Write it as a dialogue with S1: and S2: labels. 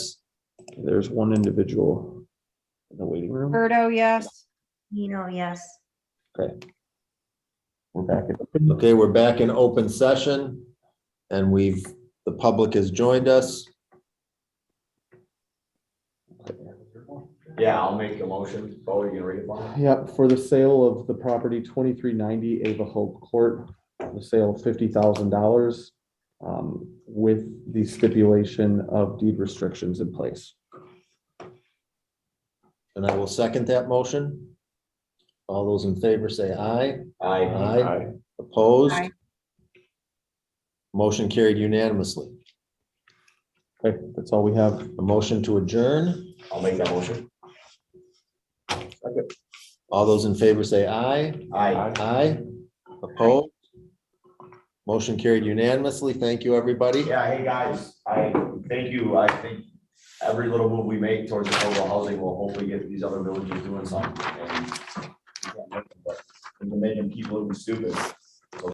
S1: There's one individual in the waiting room.
S2: Berto, yes.
S3: You know, yes.
S1: We're back. in open.
S4: Okay, we're back in open session and we've, the public has joined us.
S5: Yeah, I'll make the motion. Bo, you gonna read it for me?
S1: Yep, for the sale of the property twenty-three ninety Ava Hope Court, the sale of fifty thousand dollars um, with the stipulation of deed restrictions in place.
S4: And I will second that motion. All those in favor say aye.
S5: Aye.
S4: Aye. Opposed?
S2: Aye.
S4: Motion carried unanimously.
S1: Okay, that's all we have.
S4: A motion to adjourn.
S5: I'll make that motion.
S4: All those in favor say aye.
S5: Aye.
S4: Aye. Opposed? Motion carried unanimously. Thank you, everybody.
S5: Yeah, hey, guys, I thank you. I think every little move we make towards affordable housing will hopefully get these other villages doing something. and- But We're making people look stupid.